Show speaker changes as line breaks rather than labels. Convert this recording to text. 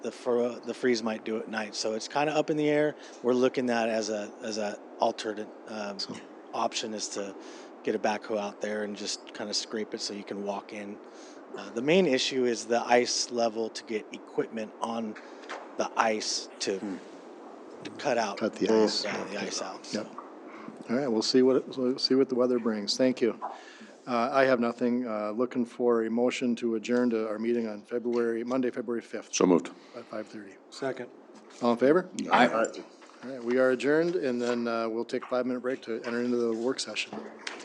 the fur, the freeze might do at night. So it's kind of up in the air. We're looking at as a as a alternate um, option is to get a backhoe out there and just kind of scrape it so you can walk in. Uh, the main issue is the ice level to get equipment on the ice to, to cut out
Hmm. Cut the ice.
yeah, the ice out. so.
Yep. All right, we'll see what, it- we'll see what the weather brings. Thank you. Uh, I have nothing. Uh, Looking for a motion to adjourn to our meeting on February, Monday, February 5th
So moved.
at 5:30.
Second.
All in favor?
Aye.
All right, we are adjourned, and then uh, we'll take a five-minute break to enter into the work session.